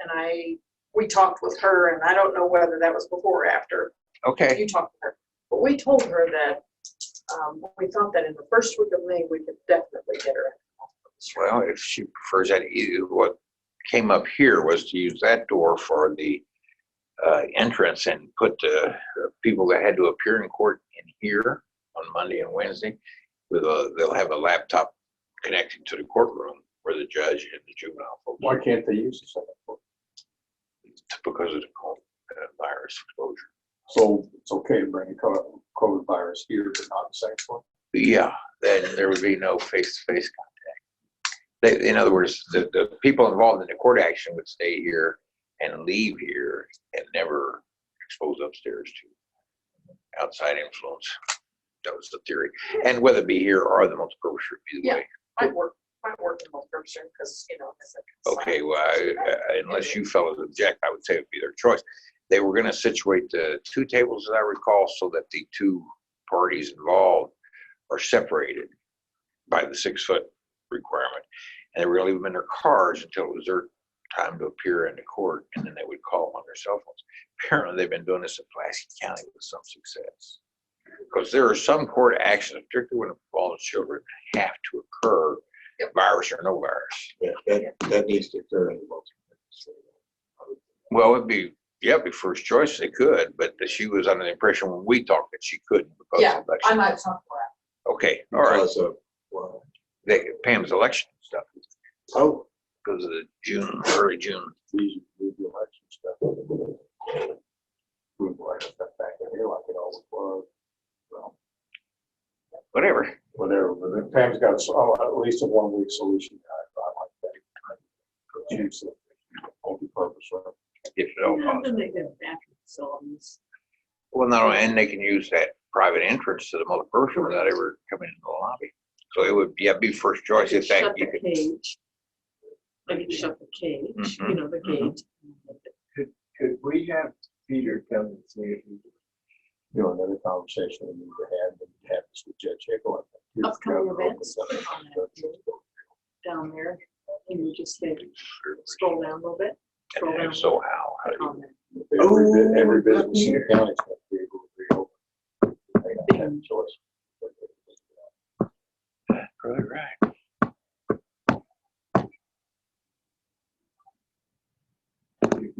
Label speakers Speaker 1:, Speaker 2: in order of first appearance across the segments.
Speaker 1: and I, we talked with her, and I don't know whether that was before or after
Speaker 2: Okay,
Speaker 1: you talked to her. But we told her that, um, we thought that in the first week of May, we could definitely get her. out.
Speaker 2: well, if she prefers that, e- what came up here was to use that door for the uh, entrance and put the people that had to appear in court in here on Monday and Wednesday. With a, they'll have a laptop connected to the courtroom where the judge and the juvenile. folks
Speaker 3: Why can't they use the second floor?
Speaker 2: are, Because of the co- uh, virus exposure.
Speaker 3: So it's okay to bring the co- COVID virus here, but not the second floor?
Speaker 2: Yeah, then there would be no face-to-face contact. They, in other words, the, the people involved in the court action would stay here and leave here and never expose upstairs to outside influence. That was the theory. And whether it be here or the Multnomah Grove Street, either way.
Speaker 1: Might work, might work in both Berkshire, because, you know. it's a-
Speaker 2: Okay, well, I- uh, I- unless you fellows object, I would say it'd be their choice. They were gonna situate the two tables, as I recall, so that the two parties involved are separated by the six-foot requirement. And they were gonna leave them in their cars until it was their time to appear in the court, and then they would call them on their cell phones. Apparently, they've been doing this in Plasky County with some success. Because there are some court actions, particularly when it involves children, have to occur,
Speaker 1: Yep.
Speaker 2: virus or no virus.
Speaker 4: Yeah, that, that needs to occur in the multi.
Speaker 2: Well, it'd be, yeah, it'd be first choice, they could, but she was under the impression when we talked that she couldn't because
Speaker 1: Yeah,
Speaker 2: of election.
Speaker 1: I might talk to her.
Speaker 2: Okay, all right,
Speaker 4: Because of, uh, well,
Speaker 2: They- Pam's election stuff,
Speaker 4: oh,
Speaker 2: because of the June, early June.
Speaker 3: These, these election stuff. We might have that back in here like it always was,
Speaker 2: Whatever,
Speaker 3: whatever, but then Pam's got, so- oh, at least a one week solution. I- I like that. Change the multi-purpose, right?
Speaker 2: if at all possible.
Speaker 1: they get bathroom facilities.
Speaker 2: Well, no, and they can use that private entrance to the multi person without ever coming into the lobby. So it would, yeah, be first choice if that, you could,
Speaker 1: cage. They can shut the cage,
Speaker 2: you
Speaker 1: know, the
Speaker 2: Mhm,
Speaker 4: could we have Peter come and see if he?
Speaker 3: You know, another conversation we need to have, and have this with Judge Hickel.
Speaker 5: Upcoming events. down there, and you just say, scroll down a little bit.
Speaker 2: and if so, how? How do you-
Speaker 5: comment.
Speaker 3: Every, bu- every
Speaker 4: Oh,
Speaker 3: business in the
Speaker 4: here.
Speaker 3: county is gonna be able to reopen. They don't have a choice.
Speaker 2: Really right.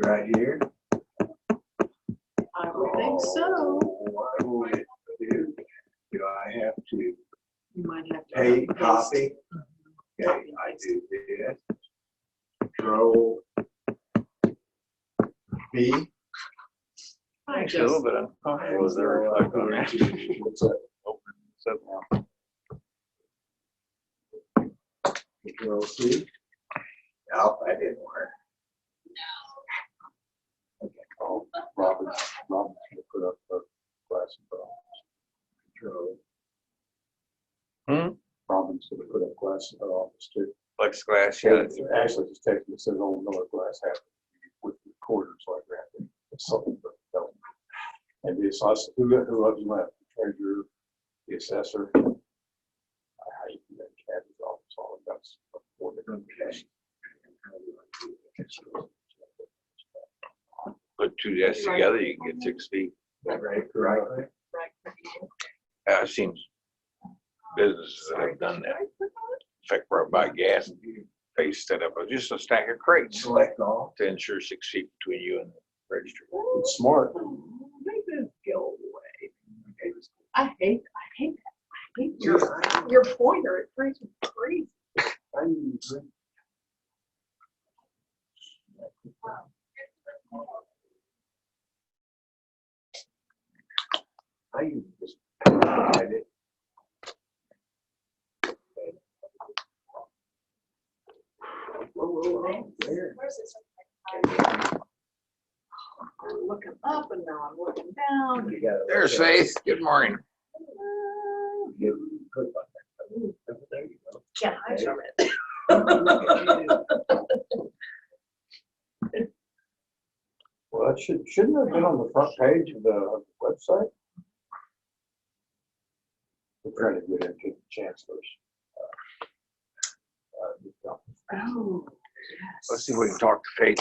Speaker 4: Right here?
Speaker 5: I would think so.
Speaker 4: Oh, I would, do. Do I have to
Speaker 5: You might have to.
Speaker 4: pay
Speaker 5: post-
Speaker 4: copy? Okay, I do this. Control B.
Speaker 5: I
Speaker 2: It's a little
Speaker 5: just,
Speaker 2: bit uncomfortable, is there a reflect on that?
Speaker 3: What's that?
Speaker 2: So,
Speaker 4: Control C. Nope, I didn't work.
Speaker 3: Oh, Robert, Robert should put up a glass of,
Speaker 4: Control
Speaker 2: Hmm?
Speaker 3: Robin's gonna put up glass of office too.
Speaker 2: Plexiglass, yeah, that's-
Speaker 3: Actually, just take this, says old Miller glass half with the quarter, so I grabbed it. It's something, but no. And the assessor, who, who loves you left? The Treasurer, the assessor. I hate that cat is all, it's all about. support and cash.
Speaker 2: put two desks together, you can get six feet.
Speaker 4: That right, correctly?
Speaker 2: Uh, I've seen businesses that have done that. In fact, where I buy gas, they set up a- just a stack of crates
Speaker 4: Select all.
Speaker 2: to ensure six feet between you and the register.
Speaker 3: It's smart.
Speaker 5: I hate, I hate that. I hate your,
Speaker 1: Your, your pointer, it brings me crazy.
Speaker 4: I use this. I did. Whoa, whoa,
Speaker 3: Oh,
Speaker 4: whoa, there.
Speaker 1: I'm looking up and now I'm looking down.
Speaker 4: You gotta-
Speaker 2: There's Faith. Good morning.
Speaker 4: You put it like that. There you go.
Speaker 1: Can't hide from it.
Speaker 3: Well, that should, shouldn't it have been on the front page of the website? We're trying to get into the chancellor's. uh, uh,
Speaker 1: Oh, yes.
Speaker 5: Oh,
Speaker 2: Let's see if we can talk to Faith